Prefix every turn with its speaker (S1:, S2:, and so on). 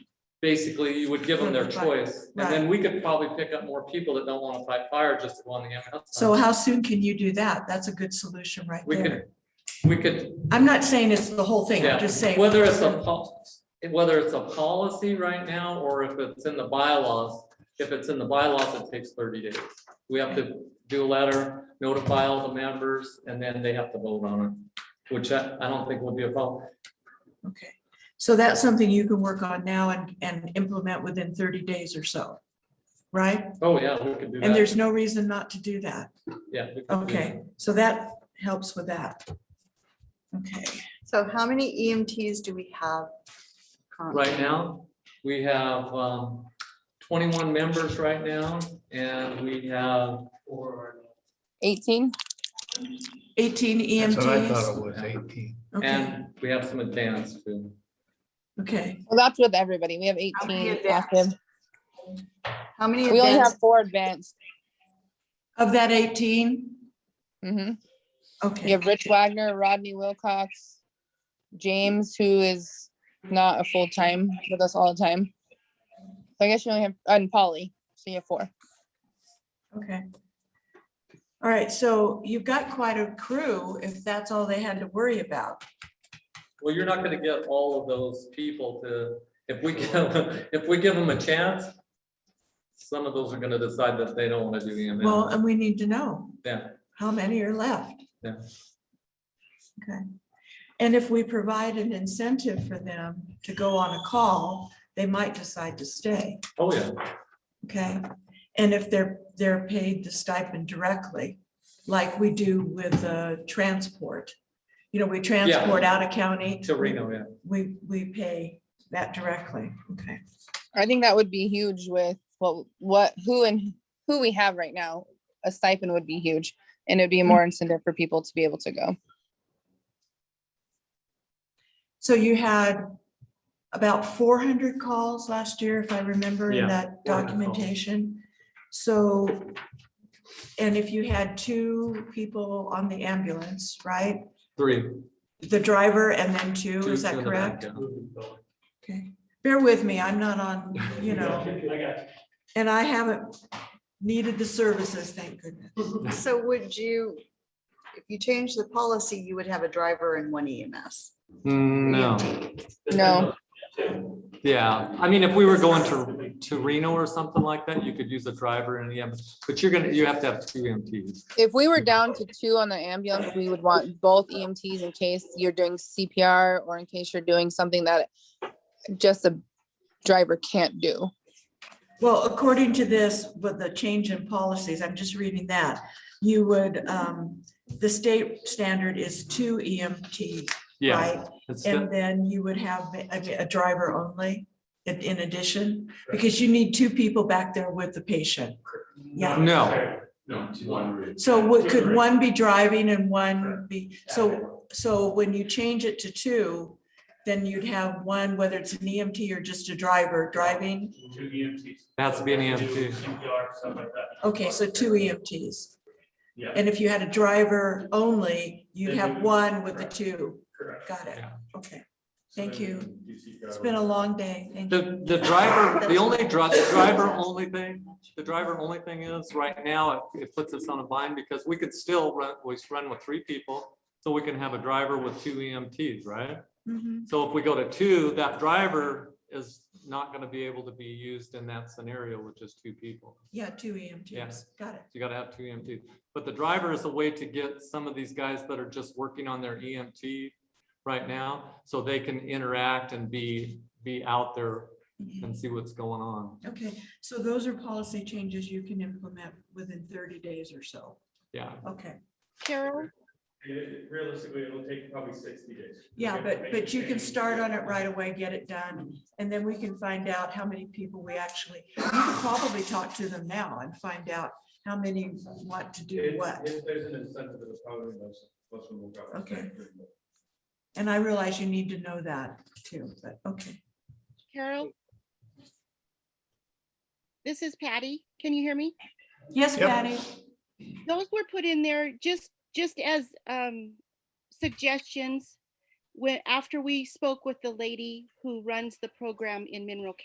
S1: basically you would give them their
S2: For the fire,
S1: choice. And then we could probably pick up more people that don't want to fight fire just to go on the EMS.
S2: So
S1: side.
S2: how soon can you do that? That's a good solution right
S1: Uh-huh. We
S2: there.
S1: could, we could,
S2: I'm not saying it's the whole thing,
S1: yeah,
S2: I'm just saying.
S1: whether it's a pol- whether it's a policy right now or if it's in the bylaws. If it's in the bylaws, it takes thirty days. We have to do a letter, notify all the members, and then they have to vote on it, which I, I don't think will be a problem.
S2: Okay, so that's something you can work on now and, and implement within thirty days or so, right?
S1: Oh, yeah, we could do that.
S2: And there's no reason not to do that.
S1: Yeah. we could do that.
S2: Okay, so that helps with that. Okay,
S3: So how many EMTs do we have? currently?
S1: Right now, we have um, twenty-one members right now, and we have
S4: Eighteen?
S2: eighteen
S5: That's what I thought
S2: EMTs.
S5: it was, eighteen.
S2: Okay,
S1: And we have some advanced too.
S2: okay,
S4: Well, that's with everybody. We have
S3: How many
S4: eighteen
S3: advanced?
S4: active.
S3: How many
S4: We only
S3: events?
S4: have four advanced.
S2: of that eighteen,
S4: hmm We
S2: okay,
S4: have Rich Wagner, Rodney Wilcox, James, who is not a full-time with us all the time. So I guess you only have, and Polly, so you have four.
S2: okay. All right, so you've got quite a crew if that's all they had to worry about.
S1: Well, you're not gonna get all of those people to, if we, give- if we give them a chance, some of those are gonna decide that they don't wanna do
S2: Well, um,
S1: EMS.
S2: and we need to know.
S1: Yeah,
S2: how many are left.
S1: Yeah.
S2: Okay, and if we provide an incentive for them to go on a call, they might decide to stay,
S1: oh, yeah,
S2: okay? And if they're, they're paid the stipend directly, like we do with uh transport. You know, we transport out of county.
S1: to Reno, yeah.
S2: We, we pay that directly, okay?
S4: I think that would be huge with what, what, who and who we have right now. A stipend would be huge and it'd be more incentive for people to be able to go.
S2: So you had about four hundred calls last year, if I remember
S1: Yeah,
S2: in that
S1: 400 calls.
S2: documentation. So, and if you had two people on the ambulance, right?
S1: Three.
S2: The driver and then two,
S1: two-
S2: is
S1: two
S2: that
S1: in the back,
S2: correct?
S1: yeah.
S2: Okay, bear with me, I'm not on, you know, and I haven't needed the services, thank goodness.
S3: So would you, if you change the policy, you would have a driver and one E EMS?
S1: Mm, No,
S4: No,
S1: yeah, I mean, if we were going to, to Reno or something like that, you could use a driver and an EMS, but you're gonna, you have to have two EMTs.
S4: if we were down to two on the ambulance, we would want both EMTs in case you're doing CPR or in case you're doing something that just a driver can't do.
S2: Well, according to this, with the change in policies, I'm just reading that, you would, um, the state standard is two E EMTs
S1: Yeah.
S2: Right,
S1: it's-
S2: and then you would have a, a driver only in, in addition, because you need two people back there with the patient. Yeah,
S1: No,
S6: No, to one.
S2: so what, could one be driving and one be, so, so when you change it to two, then you'd have one, whether it's an EMT or just a driver driving,
S6: Two EMTs.
S1: Has to be an E EMT.
S6: CPR, stuff like that.
S2: okay, so two EMTs.
S6: Yeah.
S2: And if you had a driver only, you'd
S6: Then you
S2: have
S6: would-
S2: one with the two,
S6: Correct.
S2: got it,
S1: Yeah.
S2: okay, thank
S6: So
S2: you,
S6: do CPR.
S2: it's been a long day, thank you.
S1: The, the driver, the only driver, the driver only thing, the driver only thing is, right now, it, it puts us on a bind because we could still run, we run with three people. So we can have a driver with two EMTs, right?
S2: Mhm.
S1: So if we go to two, that driver is not gonna be able to be used in that scenario with just two people.
S2: Yeah, two EMTs, got it.
S1: You gotta have two EMTs. But the driver is a way to get some of these guys that are just working on their EMT right now, so they can interact and be, be out there and see what's going on.
S2: Okay, so those are policy changes you can implement within thirty days or so.
S1: Yeah,
S2: Okay,
S4: Carol?
S6: It- Realistically, it'll take probably sixty days.
S2: yeah,
S6: Okay,
S2: but,
S6: make
S2: but you
S6: the
S2: can
S6: change.
S2: start on it right away, get it done, and then we can find out how many people we actually, you can probably talk to them now and find out how many want to do
S6: If-
S2: what.
S6: If there's an incentive, it's probably most, most of them will go.
S2: Okay. And I realize you need to know that too, but okay.
S7: Carol? This is Patty. Can you hear me?
S2: Yes,
S5: Yep.
S2: Patty?
S7: Those were put in there just, just as um suggestions. When, after we spoke with the lady who runs the program in Mineral